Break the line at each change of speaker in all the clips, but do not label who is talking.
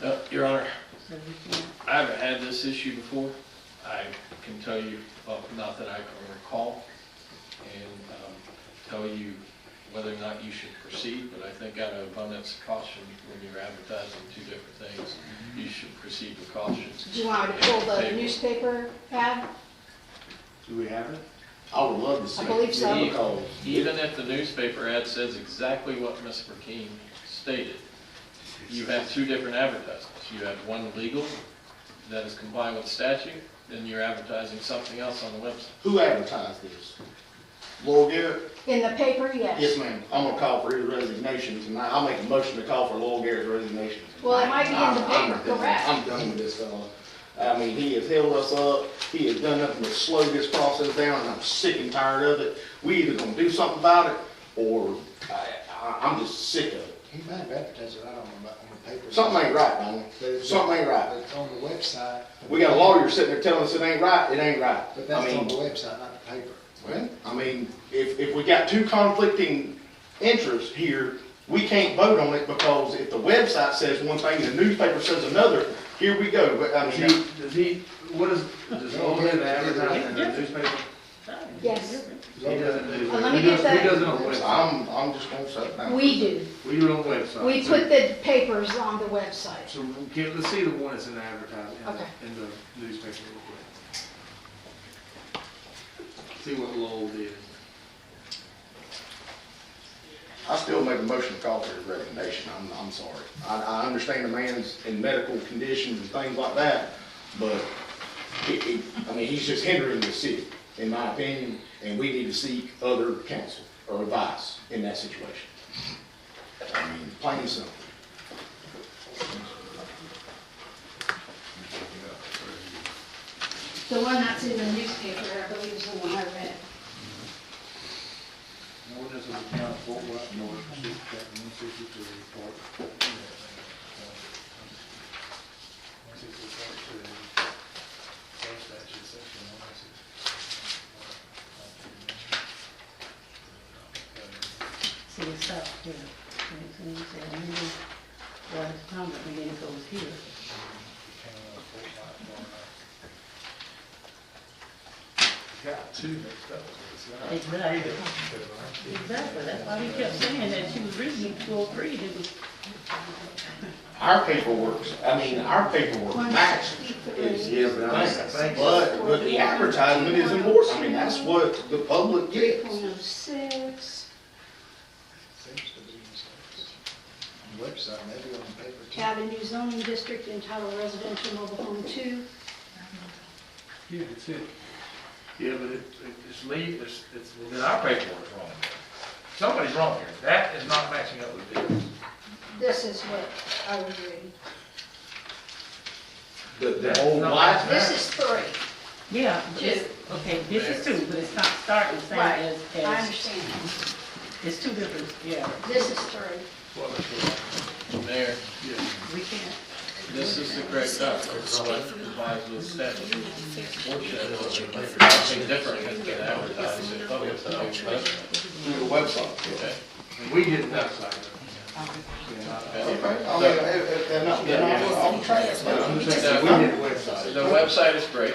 Oh, Your Honor,
So we can't,
I've had this issue before. I can tell you, well, not that I can recall, and um, tell you whether or not you should proceed, but I think out of abundance of caution, when you're advertising two different things, you should proceed with caution.
do you want me to pull the newspaper ad?
Do we have it? I would love to see.
I
it.
believe so.
Yeah, because-
Even if the newspaper ad says exactly what Ms. McKean stated, you have two different advertisements. You have one legal that is compliant with statute, then you're advertising something else on the website.
Who advertised this? Laurel Garrett?
In the paper,
Yes,
yes.
ma'am. I'm gonna call for his resignation tonight. I'll make a motion to call for Laurel Garrett's resignation.
Well, it might be in the
I'm- I'm
paper,
done.
correct.
I'm done with this fella. I mean, he has held us up. He has done nothing but slow this process down, and I'm sick and tired of it. We either gonna do something about it, or I, I, I'm just sick of it.
He might have advertised it, I don't know, but on the paper.
Something ain't right, Donnie. Something ain't
But
right.
it's on the website.
We got a lawyer sitting there telling us it ain't right, it ain't right.
But
I
that's
mean,
on the website, not the paper.
Well, I mean, if, if we got two conflicting interests here, we can't vote on it because if the website says one thing and the newspaper says another, here we go. But I
Does
mean,
he, does he, what is, does Olin advertise in the newspaper?
Yes,
He doesn't do.
Well, let
that.
me
He does-
get that-
He doesn't on the website.
I'm, I'm just gonna shut down.
we do.
We do on the website.
We put the papers on the website.
So, can, let's see the one that's in the advertising, in
Okay.
the- in the newspaper real quick. See what Lowell did.
I still make a motion to call for his resignation. I'm, I'm sorry. I, I understand the man's in medical conditions and things like that, but he, he, I mean, he's just hindering the city, in my opinion, and we need to seek other counsel or advice in that situation. I mean, plain and simple.
The one that's in the newspaper, I believe is the one I read.
An ordinance of the town of Fort Worth, North, District one sixty-three, Fort. One sixty-four, two, state statute, section one sixty.
See, it's up here. And so you say, I'm gonna- well, it's time, but then it goes here.
Got two mixed up.
Exactly. Exactly, that's why he kept saying that she was reading two oh three, it was,
Our paperwork, I mean, our paperwork matches. Is, is, the thing. but, but the advertisement is important. I mean, that's what the public
Three
gets.
point oh six,
Seems to be in states. On the Website, maybe on the paper too.
Avenue zoning district entitled residential mobile home two.
Yeah, that's it. Yeah, but it, it's leave, it's, it's, well, then our paperwork's wrong. Somebody's wrong here. That is not matching up with this.
This is what I was reading.
The, the whole life.
This is three,
yeah, but it's- okay, this is two, but it's not starting the same
Right.
as,
I
as,
understand.
it's two different, yeah,
This is three.
Well, that's what-
Mayor,
yeah.
we can't.
this is the correct document, so I advise with statute. Unfortunately, something different has been advertised in public, so I expect-
Through the website.
okay?
And we didn't know, so.
Okay, I mean, if, if they're not, they're not, I'll try it. but I'm just saying, we need a website.
The website is great,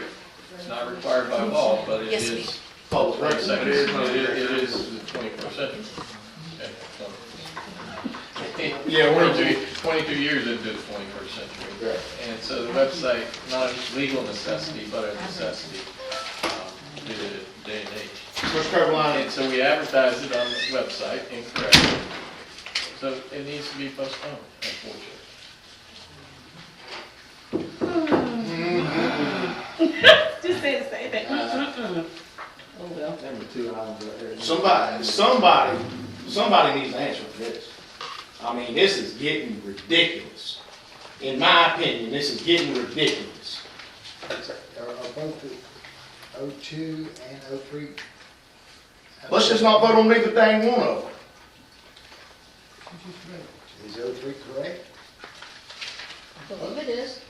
it's not required by law, but it
Yes, we-
is,
Public
right,
record.
second, it is, it is the twenty-first century. Okay, so.
Yeah, we're-
22 22 years into the twenty-first century.
Yeah.
And so the website, not a legal necessity, but a necessity, um, due to the day and age.
North Carolina,
And so we advertise it on the website incorrectly. So it needs to be postponed, unfortunately.
Just say the same thing. Oh, well.
Number two items right there.
somebody, somebody, somebody needs to answer for this. I mean, this is getting ridiculous. In my opinion, this is getting ridiculous.
Are, are both the O two and O three?
Let's just not vote on neither dang one of them.
Is O three correct?
Believe it is.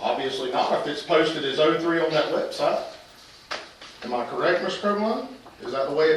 Obviously not, if it's oh posted as O3 on that website. Am I correct, Mr. Carolina? Is that the way it